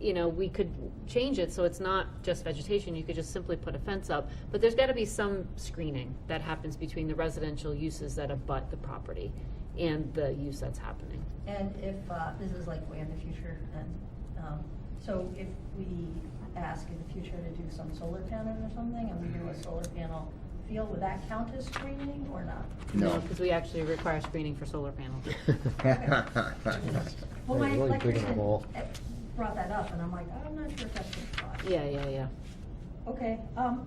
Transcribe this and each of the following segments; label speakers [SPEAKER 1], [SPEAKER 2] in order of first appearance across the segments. [SPEAKER 1] you know, we could change it so it's not just vegetation, you could just simply put a fence up. But there's gotta be some screening that happens between the residential uses that abut the property and the use that's happening.
[SPEAKER 2] And if, uh, this is like way in the future, and, um, so if we ask in the future to do some solar panel or something, and we do a solar panel field, would that count as screening or not?
[SPEAKER 3] No.
[SPEAKER 1] Because we actually require screening for solar panels.
[SPEAKER 2] Well, my
[SPEAKER 3] Yeah, really big
[SPEAKER 2] electrician
[SPEAKER 3] ball.
[SPEAKER 2] uh, brought that up, and I'm like, I'm not sure if that's a spot.
[SPEAKER 1] Yeah, yeah, yeah.
[SPEAKER 2] Okay, um,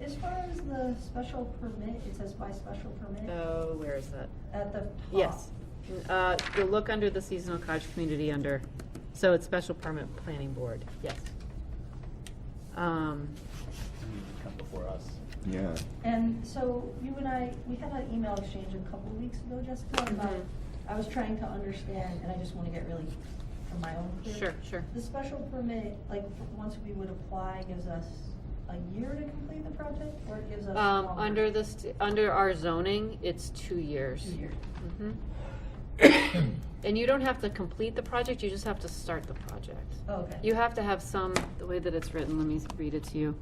[SPEAKER 2] as far as the special permit, it says by special permit
[SPEAKER 1] Oh, where is that?
[SPEAKER 2] at the top.
[SPEAKER 1] Yes. Uh, you'll look under the seasonal cottage community under, so it's special permit planning board, yes. Um,
[SPEAKER 4] come before us.
[SPEAKER 3] Yeah.
[SPEAKER 2] And so you and I, we had an email exchange a couple of weeks ago, Jessica, about,
[SPEAKER 1] Mhm.
[SPEAKER 2] I was trying to understand, and I just wanna get really from my own. clear.
[SPEAKER 1] Sure, sure.
[SPEAKER 2] The special permit, like, f- once we would apply, gives us a year to complete the project, or it gives us?
[SPEAKER 1] Um,
[SPEAKER 2] longer?
[SPEAKER 1] under this, under our zoning, it's two years.
[SPEAKER 2] Two years.
[SPEAKER 1] Mhm. And you don't have to complete the project, you just have to start the project.
[SPEAKER 2] Oh, Okay.
[SPEAKER 1] You have to have some, the way that it's written, let me read it to you.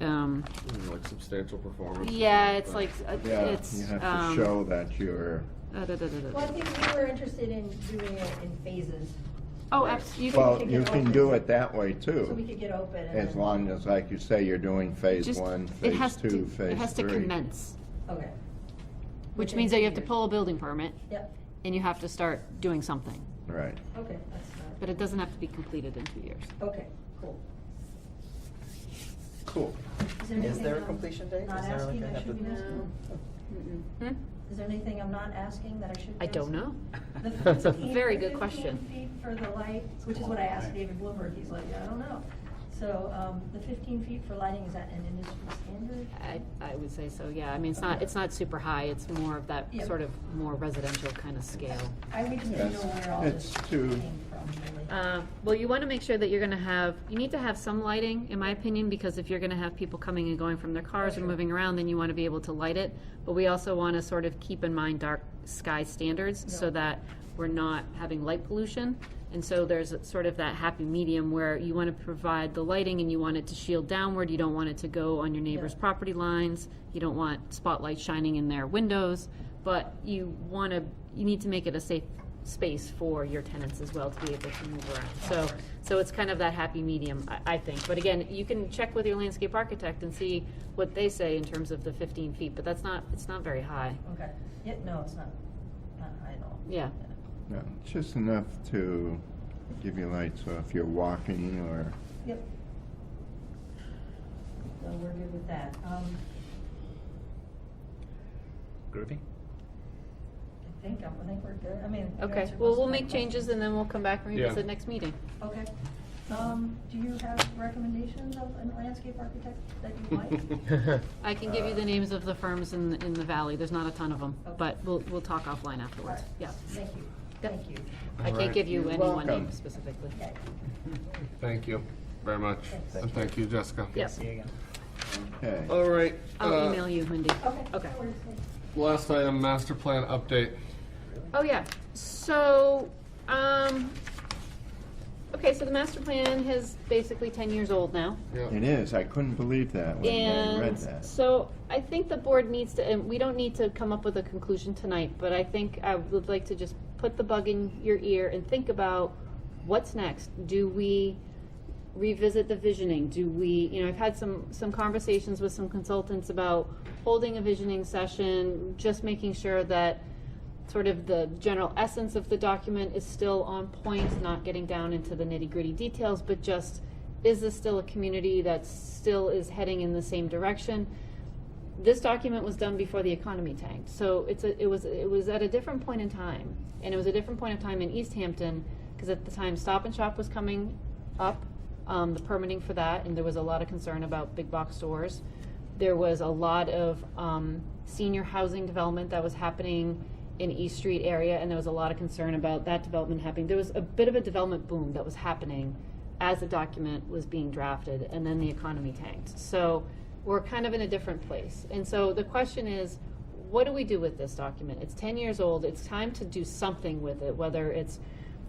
[SPEAKER 1] Um,
[SPEAKER 5] Like substantial performance.
[SPEAKER 1] yeah, it's like, uh,
[SPEAKER 3] Yeah,
[SPEAKER 1] it's,
[SPEAKER 3] you have to
[SPEAKER 1] um.
[SPEAKER 3] show that you're,
[SPEAKER 1] uh, da, da, da, da.
[SPEAKER 2] Well, I think we were interested in doing it in phases,
[SPEAKER 1] Oh, abs, you
[SPEAKER 3] well,
[SPEAKER 1] can,
[SPEAKER 2] kick
[SPEAKER 3] you
[SPEAKER 2] it
[SPEAKER 3] can
[SPEAKER 2] open.
[SPEAKER 3] do it that way
[SPEAKER 2] so we
[SPEAKER 3] too.
[SPEAKER 2] could get open and
[SPEAKER 3] As
[SPEAKER 2] then-
[SPEAKER 3] long as, like you say, you're doing phase
[SPEAKER 1] just,
[SPEAKER 3] one,
[SPEAKER 1] it
[SPEAKER 3] phase
[SPEAKER 1] has
[SPEAKER 3] two,
[SPEAKER 1] to, it
[SPEAKER 3] phase
[SPEAKER 1] has to
[SPEAKER 3] three.
[SPEAKER 1] commence,
[SPEAKER 2] Okay.
[SPEAKER 1] which
[SPEAKER 2] Within
[SPEAKER 1] means that
[SPEAKER 2] two
[SPEAKER 1] you have to
[SPEAKER 2] years.
[SPEAKER 1] pull a building permit
[SPEAKER 2] Yep,
[SPEAKER 1] and you have to start doing something.
[SPEAKER 3] Right.
[SPEAKER 2] okay, that's, not-
[SPEAKER 1] But it doesn't have to be completed in two years.
[SPEAKER 2] okay, cool.
[SPEAKER 3] Cool.
[SPEAKER 4] Is there a
[SPEAKER 2] anything I'm
[SPEAKER 4] completion date?
[SPEAKER 2] Not
[SPEAKER 4] Is there
[SPEAKER 2] asking,
[SPEAKER 4] like a-
[SPEAKER 2] I should be asking.
[SPEAKER 1] Hmm?
[SPEAKER 2] Is there anything I'm not asking that I should be
[SPEAKER 1] I don't
[SPEAKER 2] asking?
[SPEAKER 1] know.
[SPEAKER 2] The 15
[SPEAKER 1] Very
[SPEAKER 2] the
[SPEAKER 1] good
[SPEAKER 2] 15
[SPEAKER 1] question.
[SPEAKER 2] feet for the light, which is what I asked David Bloomberg, he's like, I don't know. So, um, the fifteen feet for lighting, is that an industry standard?
[SPEAKER 1] I, I would say so, yeah. I mean, it's not, it's not super high. It's more of that
[SPEAKER 2] Yeah.
[SPEAKER 1] sort of more residential kind of scale.
[SPEAKER 2] I would just know
[SPEAKER 3] Yes,
[SPEAKER 2] where all this
[SPEAKER 3] it's
[SPEAKER 2] came
[SPEAKER 3] two.
[SPEAKER 2] from, really.
[SPEAKER 1] Uh, Well, you want to make sure that you're going to have, you need to have some lighting, in my opinion, because if you're going to have people coming and going from their cars and moving around, then you want to be able to light it. But we also want to sort of keep in mind dark sky standards so
[SPEAKER 2] Yeah.
[SPEAKER 1] that we're not having light pollution. And so there's sort of that happy medium where you want to provide the lighting and you want it to shield downward. You don't want it to go on your neighbor's
[SPEAKER 2] Yeah.
[SPEAKER 1] property lines. You don't want spotlight shining in their windows, but you want to, you need to make it a safe space for your tenants as well to be able to move around. So, so it's kind of that happy medium, I, I think. But again, you can check with your landscape architect and see what they say in terms of the fifteen feet, but that's not, it's not very high.
[SPEAKER 2] Okay, yeah, no, it's not, not high at all.
[SPEAKER 1] Yeah.
[SPEAKER 3] No, Just enough to give you light, so if you're walking or,
[SPEAKER 2] Yep. So we're good with that. Um,
[SPEAKER 4] Groovy?
[SPEAKER 2] I think, I'm- I think we're good, I mean. you
[SPEAKER 1] Okay,
[SPEAKER 2] answered
[SPEAKER 1] well,
[SPEAKER 2] most
[SPEAKER 1] we'll
[SPEAKER 2] of my
[SPEAKER 1] make changes
[SPEAKER 2] questions.
[SPEAKER 1] and then we'll come back and
[SPEAKER 5] Yeah.
[SPEAKER 1] revisit next meeting.
[SPEAKER 2] Okay. Um, do you have recommendations of a landscape architect that you like?
[SPEAKER 1] I can give you the names of the firms in, in the valley. There's not a ton of them,
[SPEAKER 2] Okay.
[SPEAKER 1] but we'll, we'll talk offline afterwards. Yeah.
[SPEAKER 2] Thank you, thank you.
[SPEAKER 1] I can't give you
[SPEAKER 3] You're
[SPEAKER 1] any one name
[SPEAKER 3] welcome.
[SPEAKER 1] specifically.
[SPEAKER 2] Yeah.
[SPEAKER 5] Thank you very much.
[SPEAKER 2] Thanks.
[SPEAKER 5] And thank you, Jessica.
[SPEAKER 1] Yes,
[SPEAKER 4] See you again.
[SPEAKER 3] okay.
[SPEAKER 5] All right.
[SPEAKER 1] I'll
[SPEAKER 5] uh,
[SPEAKER 1] email you, Wendy.
[SPEAKER 2] Okay.
[SPEAKER 1] Okay.
[SPEAKER 2] no worries, thank you.
[SPEAKER 5] Last item, master plan update.
[SPEAKER 1] Oh, yeah. So, um, okay, so the master plan is basically ten years old now.
[SPEAKER 5] Yeah.
[SPEAKER 3] It is, I couldn't believe that when I read
[SPEAKER 1] And
[SPEAKER 3] that.
[SPEAKER 1] so I think the board needs to, and we don't need to come up with a conclusion tonight, but I think I would like to just put the bug in your ear and think about what's next. Do we revisit the visioning? Do we, you know, I've had some, some conversations with some consultants about holding a visioning session, just making sure that sort of the general essence of the document is still on point, not getting down into the nitty-gritty details, but just, is this still a community that still is heading in the same direction? This document was done before the economy tanked, so it's a, it was, it was at a different point in time, and it was a different point of time in East Hampton, because at the time, Stop and Shop was coming up, um, the permitting for that, and there was a lot of concern about big box stores there was a lot of um, senior housing development that was happening in East Street area, and there was a lot of concern about that development happening. There was a bit of a development boom that was happening as the document was being drafted, and then the economy tanked. So we're kind of in a different place. And so the question is, what do we do with this document? It's 10 years old. It's time to do something with it, whether it's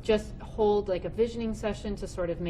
[SPEAKER 1] just hold like a visioning session to sort of make